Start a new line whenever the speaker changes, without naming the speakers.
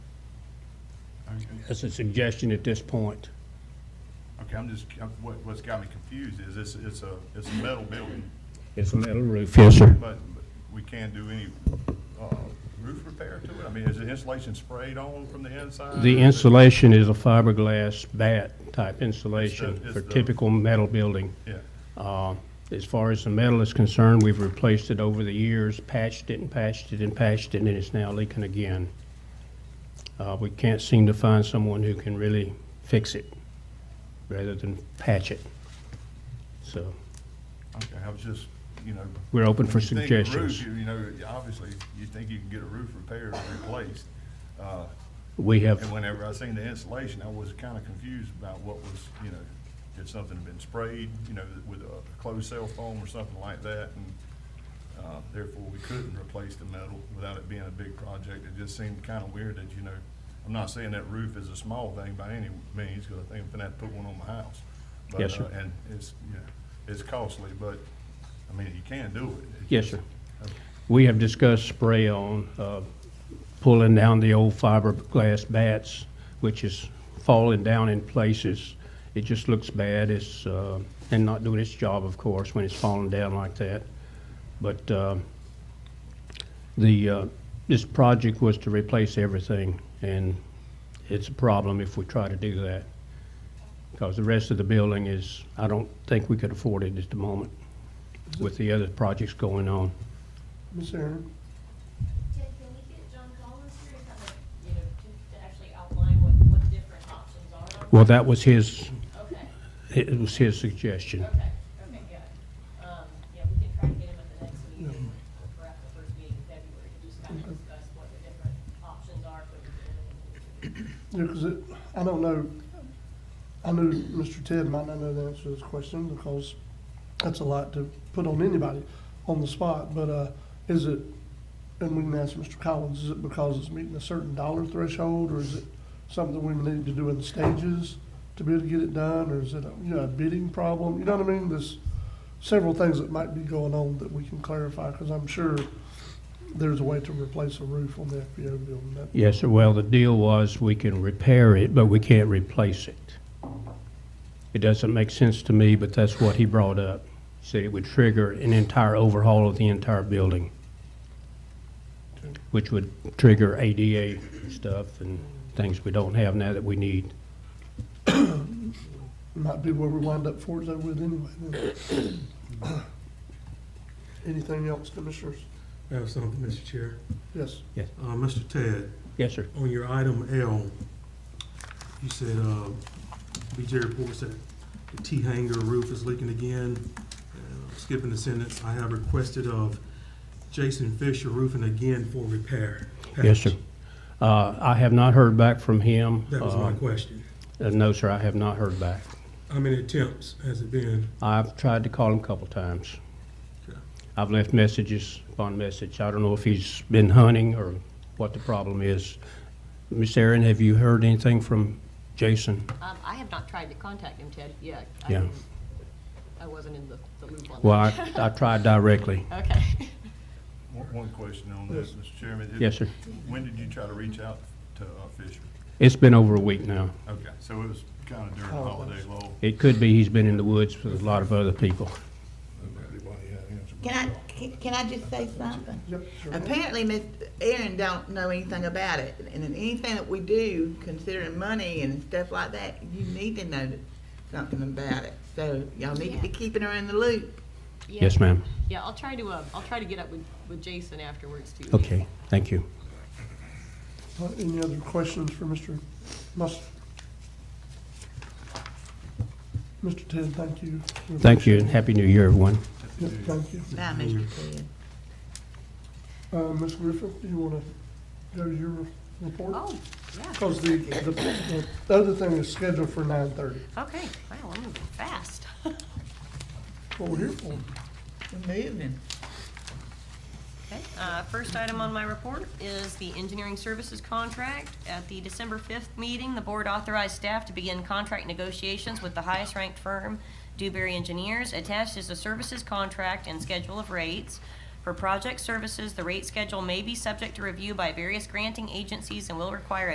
That's a suggestion at this point.
Okay, I'm just, I'm- what, what's got me confused is it's, it's a, it's a metal building,
It's a metal roof. Yes, sir.
but we can't do any, uh, roof repair to it? I mean, is the insulation sprayed on from the inside?
The
Is it-
insulation is a fiberglass bat type insulation
It's the- it's
for
the-
typical metal building.
Yeah,
Uh, As far as the metal is concerned, we've replaced it over the years, patched it and patched it and patched it, and it's now leaking again. Uh, We can't seem to find someone who can really fix it rather than patch it. So
okay, I was just, you know.
we're open for
when you think of roof,
suggestions.
You you know, obviously, you think you can get a roof repaired or replaced. Uh,
We have,
And whenever I seen the insulation, I was kind of confused about what was, you know, had something been sprayed, you know, with a closed cell foam or something like that, and, uh, therefore we couldn't replace the metal without it being a big project. It just seemed kind of weird that, you know, I'm not saying that roof is a small thing by any means, because I think I'm gonna have to put one on my house. But,
Yes, sir.
uh, And it's, you know, it's costly, but, I mean, you can do it. It's
yes,
just-
sir. We have discussed spray on, uh, pulling down the old fiberglass bats, which is falling down in places. It just looks bad, it's, uh, and not doing its job, of course, when it's falling down like that. But uh, the, uh, this project was to replace everything, and it's a problem if we try to do that. Because the rest of the building is, I don't think we could afford it at the moment with the other projects going on.
Ms. Aaron,
Ted, can we get John Collins here to kind of, you know, to to actually outline what, what different options are?
Well, that was his,
Okay,
it was his suggestion.
okay, okay, good. Um, yeah, we can try to get him at the next meeting, or perhaps the first meeting in February, to just kind of discuss what the different options are for the
yeah, because it, I don't know, I knew Mr. Ted might not know the answer to this question because that's a lot to put on anybody on the spot, but, uh, is it, and we can ask Mr. Collins, is it because it's meeting a certain dollar threshold, or is it something we need to do in stages to be able to get it done, or is it, a, you know, a bidding problem, you know what I mean? There's several things that might be going on that we can clarify, because I'm sure there's a way to replace a roof on the FBO building, that,
Yes, sir. Well, the deal was we can repair it, but we can't replace it. It doesn't make sense to me, but that's what he brought up. He Said it would trigger an entire overhaul of the entire building, which would trigger ADA stuff and things we don't have now that we need.
might be where we wind up for though with anyway. then. Anything else, commissioners?
I have something, Mr. Chair.
Yes,
Uh, Mr. Ted,
Yes, sir.
on your item L, you said, uh, BJ reports that the T hanger roof is leaking again. Uh, Skipping the sentence, I have requested of Jason Fisher Roofing again for repair.
Yes, sir. Uh, I have not heard back from him.
That was my
Uh,
question.
Uh, No, sir, I have not heard back.
How many attempts has it been?
I've tried to call him a couple times.
Okay.
I've left messages upon message. I don't know if he's been hunting or what the problem is. Miss Erin, have you heard anything from Jason?
Um, I have not tried to contact him, Ted, yet.
I Yeah. didn't-
I wasn't in the, the loop on
Well, I, I tried directly.
Okay.
One, one question on this, Mr. Chairman. It-
Yes, sir.
When did you try to reach out to uh, Fisher?
It's been over a week now.
Okay, so it was kind of during the
Oh,
holiday lull.
It could be he's been in the woods with a lot of other people.
Can I, can- can I just say something?
yep, sure.
Apparently, Miss Erin don't know anything about it, and in anything that we do, considering money and stuff like that, you need to know something about it. So y'all need to be
Yeah.
keeping her in the loop.
Yes, ma'am.
Yeah, I'll try to, uh, I'll try to get up with, with Jason afterwards too.
Okay, thank you.
Uh, Any other questions for Mr. Mus? Mr. Ted, thank you. We
Thank you, and Happy New Year, everyone.
appreciate it. Yep, thank you.
Bye, Mr. Ted.
Uh, Ms. Griffith, do you want to go to your report?
Oh, yeah.
Because the, the, the other thing is scheduled for nine thirty.
Okay, wow, I'm moving fast.
What we're here for.
We're moving.
Okay, uh, first item on my report is the engineering services contract. At the December 5th meeting, the board authorized staff to begin contract negotiations with the highest-ranked firm, Dewberry Engineers. Attached is a services contract and schedule of rates. For project services, the rate schedule may be subject to review by various granting agencies and will require